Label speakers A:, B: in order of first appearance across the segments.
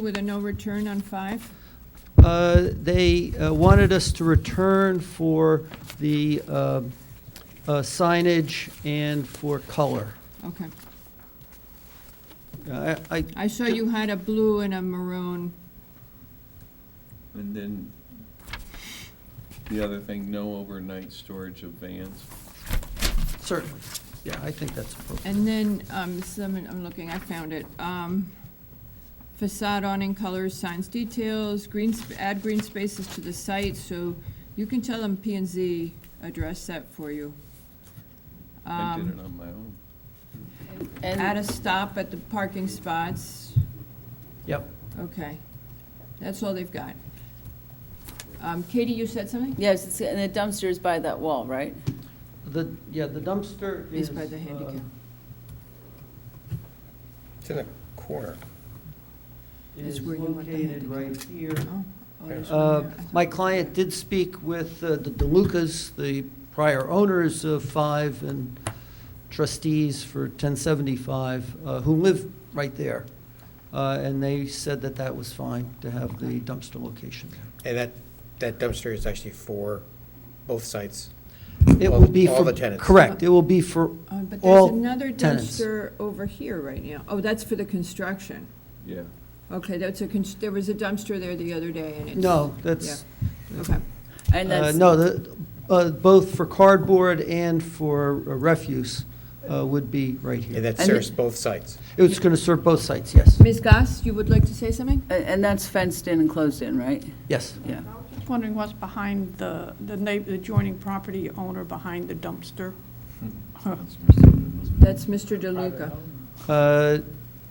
A: With a no return on five?
B: Uh, They uh, wanted us to return for the uh, uh, signage and for color.
A: Okay.
B: I, I-
A: I saw you had a blue and a maroon.
C: And then the other thing, no overnight storage of vans.
B: certainly, yeah, I think that's appropriate.
A: And then, um, some, I'm looking, I found it. Um, Facade awning colors, signs details, green, sp- add green spaces to the site, so you can tell them P and Z address that for you.
C: I did
A: Um,
C: it on my own.
A: Add
D: And
A: a stop at the parking spots.
B: Yep.
A: Okay. That's all they've got. Um, Katie, you said something?
D: yes, it's, and the dumpster is by that wall, right?
B: The, yeah, the dumpster is.
A: Is by the
B: uh,
A: handicap.
E: It's in a corner.
A: Is
B: Is
A: where you want the
B: located right here.
A: Oh, oh, there's one
B: Uh,
A: there. I thought-
B: My client did speak with uh, the DeLucas, the prior owners of Five and trustees for 1075, uh, who live right there. Uh, And they said that that was fine to have the dumpster location there.
E: And that, that dumpster is actually for both sites.
B: It
E: All-
B: will be for.
E: all the tenants.
B: Correct, it will be for
A: Uh, But
B: all
A: there's another
B: tenants.
A: dumpster over here right now. Oh, that's for the construction.
C: Yeah.
A: Okay, that's a, cons- there was a dumpster there the other day and it's.
B: No, that's,
A: Okay,
D: And
B: uh,
D: that's,
B: no, the- uh, both for cardboard and for uh, refuse uh, would be right
E: And
B: here.
E: that
D: And-
E: serves both sites.
B: It's going to serve both sites, yes,
A: Ms. Goss, you would like to say something?
D: and and that's fenced in and closed in, right?
B: yes.
D: Yeah.
F: Just wondering what's behind the, the na- the adjoining property owner behind the dumpster?
A: That's Mr. DeLuca.
B: Uh,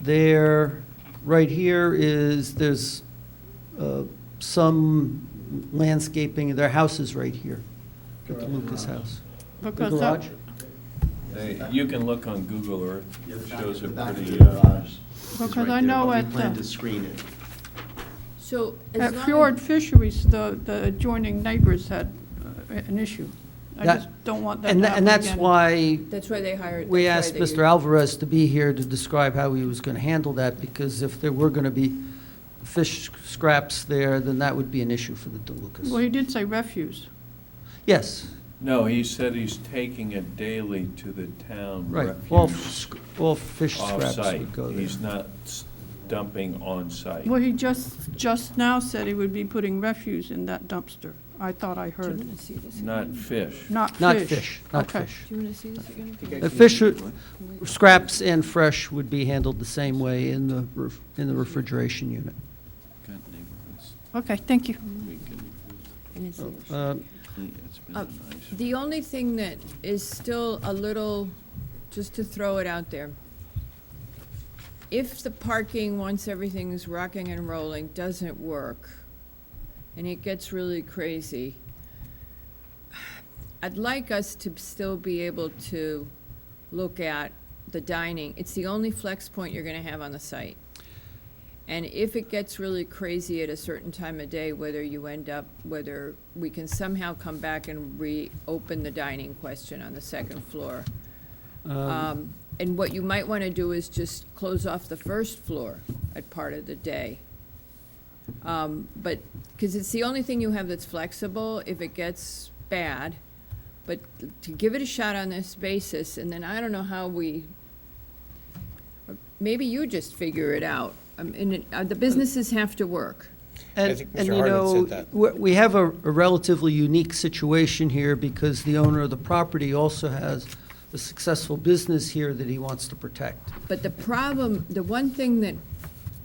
B: There, right here is, there's uh, some landscaping, their house is right here, at the Lucas house. The
F: Because that-
B: garage?
C: They- You can look on Google Earth,
G: Yeah, the
C: it
G: back-
C: shows
G: the
C: it
G: back of
C: pretty,
G: the
C: uh,
G: garage is
F: Because
G: right
F: I
G: there,
F: know
G: but
F: at
G: We plan
F: the-
G: to screen it.
A: So as
F: At
A: long.
F: Fjord Fisheries, the, the adjoining neighbors had uh, an issue. I
B: That-
F: just don't want that
B: And
F: to
B: tha-
F: happen
B: and that's
F: again.
B: why
A: That's why they hired.
B: we
A: that's
B: asked
A: why they
B: Mr. Alvarez to be here to describe how he was going to handle that, because if there were going to be fish scraps there, then that would be an issue for the
F: Well,
B: DeLucas.
F: you did say refuse.
B: Yes,
C: no, he said he's taking it daily to the town
B: right, all,
C: refuge
B: sc- all fish scraps
C: off-site.
B: would go there.
C: He's not s- dumping on-site.
F: Well, he just, just now said he would be putting refuse in that dumpster. I thought I
A: Do you
F: heard.
A: want to see this?
C: Not
A: again?
C: fish.
F: Not fish.
B: Not fish, not
F: Okay.
B: fish.
A: Do you want to see this again?
B: The fish, are- scraps and fresh would be handled the same way in the, ref- in the refrigeration unit.
C: Got neighborhoods,
F: Okay, thank you.
C: we can
A: And it's yours.
B: Uh,
C: clean- it's been
A: Uh,
C: a nice-
A: The only thing that is still a little, just to throw it out there, if the parking, once everything's rocking and rolling, doesn't work, and it gets really crazy, I'd like us to still be able to look at the dining. It's the only flex point you're gonna have on the site. And if it gets really crazy at a certain time of day, whether you end up, whether we can somehow come back and reopen the dining question on the second floor.
B: uh,
A: Um, And what you might want to do is just close off the first floor at part of the day. Um, But, because it's the only thing you have that's flexible if it gets bad. But to give it a shot on this basis, and then I don't know how we, maybe you just figure it out. I mean, and, uh, the businesses have to work.
B: And,
E: I think
B: and
E: Mr.
B: you
E: Hartman
B: know,
E: said that.
B: we- we have a a relatively unique situation here because the owner of the property also has a successful business here that he wants to protect.
A: But the problem, the one thing that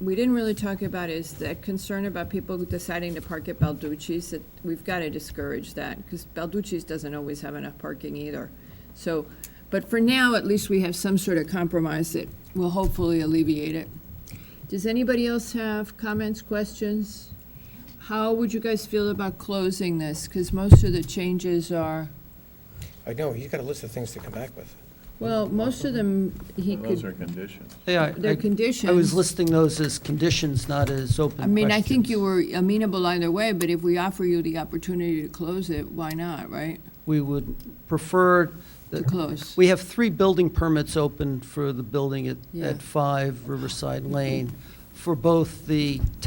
A: we didn't really talk about is that concern about people deciding to park at Balducci's, that we've got to discourage that, because Balducci's doesn't always have enough parking either. So, but for now, at least we have some sort of compromise that will hopefully alleviate it. Does anybody else have comments, questions? How would you guys feel about closing this? Because most of the changes are,
E: I know, he's got a list of things to come back with.
A: well, most of them, he
C: Those
A: could,
C: are conditions.
B: Yeah, I-
A: they're
B: I
A: conditions.
B: I was listing those as conditions, not as open
A: I mean, I think
B: questions.
A: you were amenable either way, but if we offer you the opportunity to close it, why not, right?
B: We would prefer,
A: To
B: that-
A: close.
B: we have three building permits open for the building at,
A: Yeah.
B: at 5 Riverside Lane. for both the